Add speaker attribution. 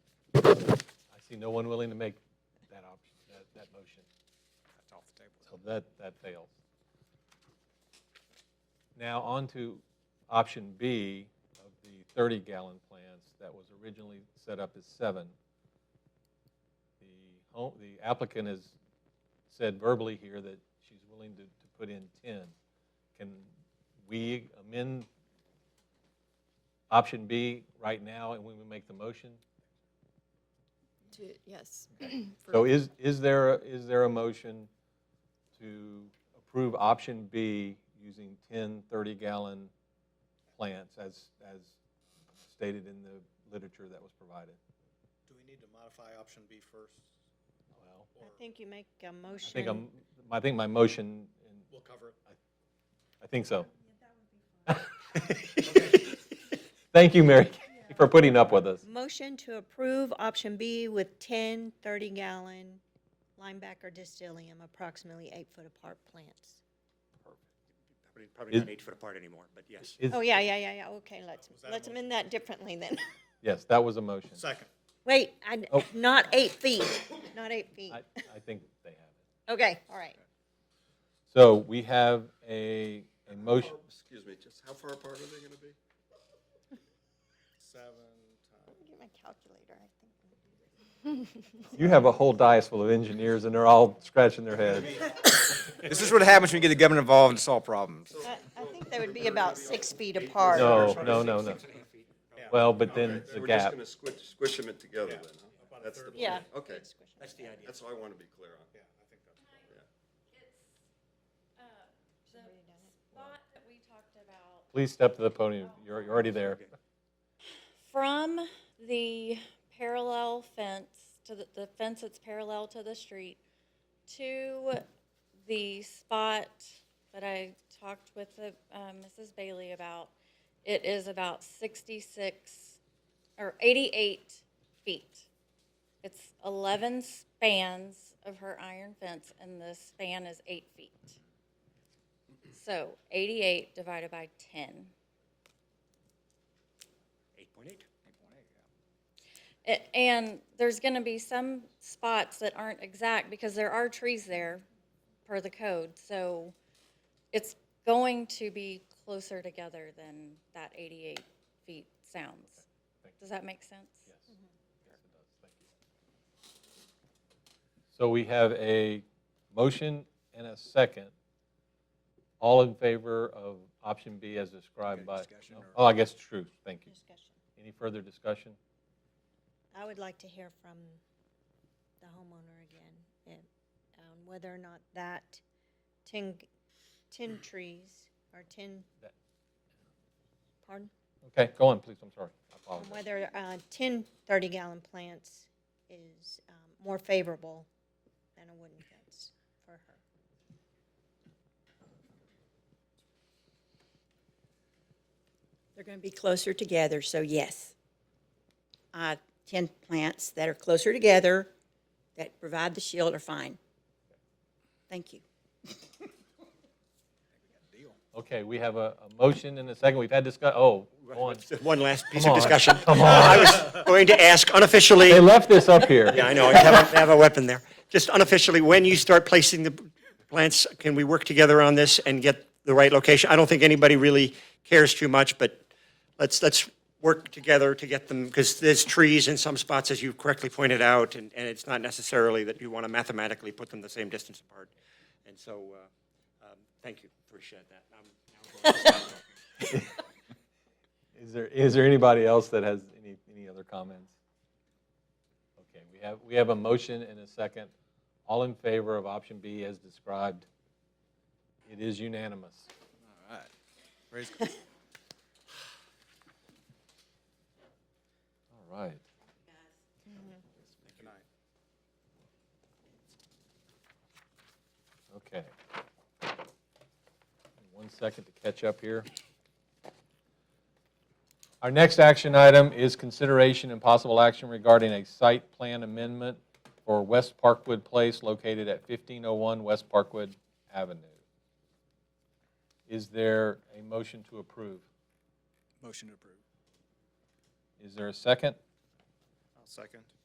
Speaker 1: I see no one willing to make that option, that, that motion.
Speaker 2: That's off the table.
Speaker 1: So that, that fails. Now, on to option B of the 30-gallon plants that was originally set up as seven. The home, the applicant has said verbally here that she's willing to, to put in 10. Can we amend option B right now and when we make the motion?
Speaker 3: To- Yes. for-
Speaker 1: So is, is there, a- is there a motion to approve option B using 10 30-gallon plants as, as stated in the literature that was provided?
Speaker 4: Do we need to modify option B first?
Speaker 1: Well,
Speaker 4: or
Speaker 5: I think you make a
Speaker 1: I think I'm,
Speaker 5: motion.
Speaker 1: I think my motion, and
Speaker 4: We'll cover it.
Speaker 1: I think so. Thank you, Mary, Kay, for putting up with us.
Speaker 5: Motion to approve option B with 10 30-gallon Linebacker Distillium, approximately eight-foot apart plants.
Speaker 2: Probably- Probably
Speaker 1: Is-
Speaker 2: not eight foot apart anymore, but yes.
Speaker 1: Is-
Speaker 5: Oh, yeah, yeah, yeah, yeah, okay, let's,
Speaker 4: Was that a
Speaker 5: let's
Speaker 4: motion?
Speaker 5: amend that differently then.
Speaker 1: Yes, that was a motion.
Speaker 4: Second,
Speaker 5: Wait, I-
Speaker 1: Oh.
Speaker 5: not eight feet, not eight feet.
Speaker 1: I, I think they have it.
Speaker 5: Okay, all right.
Speaker 1: So we have a, a motion.
Speaker 6: Excuse me, just how far apart are they gonna be?
Speaker 4: seven times.
Speaker 5: Get my calculator, I think.
Speaker 1: You have a whole dais full of engineers, and they're all scratching their heads.
Speaker 2: This is what happens when you get the government involved and solve problems.
Speaker 5: I, I think they would be about six feet apart.
Speaker 1: No, no, no, no. Well, but then the
Speaker 6: We're just
Speaker 1: gap,
Speaker 6: gonna squish, squish them in together then, huh? That's the
Speaker 5: Yeah.
Speaker 6: plan. Okay,
Speaker 2: That's the idea.
Speaker 6: that's all I wanna be clear on.
Speaker 4: Yeah, I think that's.
Speaker 7: uh, The spot that we talked about,
Speaker 1: please step to the podium. You're, you're already there.
Speaker 7: from the parallel fence to the, the fence that's parallel to the street to the spot that I talked with the, um, Mrs. Bailey about, it is about sixty-six or eighty-eight feet. It's eleven spans of her iron fence and the span is eight feet. So eighty-eight divided by ten.
Speaker 2: Eight point eight. Eight point eight, yeah.
Speaker 7: A- And there's going to be some spots that aren't exact because there are trees there per the code. So it's going to be closer together than that 88 feet sounds. Does that make sense?
Speaker 1: So we have a motion and a second. All in favor of option B as described by?
Speaker 2: discussion
Speaker 1: no?
Speaker 2: or-
Speaker 1: Oh, I guess true, thank you.
Speaker 5: Discussion.
Speaker 1: Any further discussion?
Speaker 5: I would like to hear from the homeowner again, and, um, whether or not that ten, g- ten trees or ten,
Speaker 1: That-
Speaker 5: pardon?
Speaker 1: Okay, go on, please, I'm sorry. I
Speaker 5: Um,
Speaker 1: apologize.
Speaker 5: Whether, uh, ten thirty-gallon plants is, um, more favorable than a wooden fence for her.
Speaker 8: They're going to be closer together, so yes. Uh, 10 plants that are closer together, that provide the shield are fine. Thank you.
Speaker 1: Okay, we have a, a motion and a second. We've had discuss, oh, go on.
Speaker 2: One last piece
Speaker 1: Come
Speaker 2: of
Speaker 1: on,
Speaker 2: discussion. I was going to ask unofficially.
Speaker 1: They left this up here.
Speaker 2: Yeah, I know, I have a- I have a weapon there. Just unofficially, when you start placing the plants, can we work together on this and get the right location? I don't think anybody really cares too much, but let's, let's work together to get them, because there's trees in some spots, as you correctly pointed out, and, and it's not necessarily that you want to mathematically put them the same distance apart. And so, uh, um, thank you, appreciate that. I'm- now I'm going to-
Speaker 1: Is there, is there anybody else that has any, any other comments? Okay, we have, we have a motion and a second. All in favor of option B as described? It is unanimous. All right. Okay. One second to catch up here. Our next action item is consideration and possible action regarding a site plan amendment for West Parkwood Place located at 1501 West Parkwood Avenue. Is there a motion to approve?
Speaker 4: Motion to approve.
Speaker 1: Is there a second?
Speaker 4: I'll second.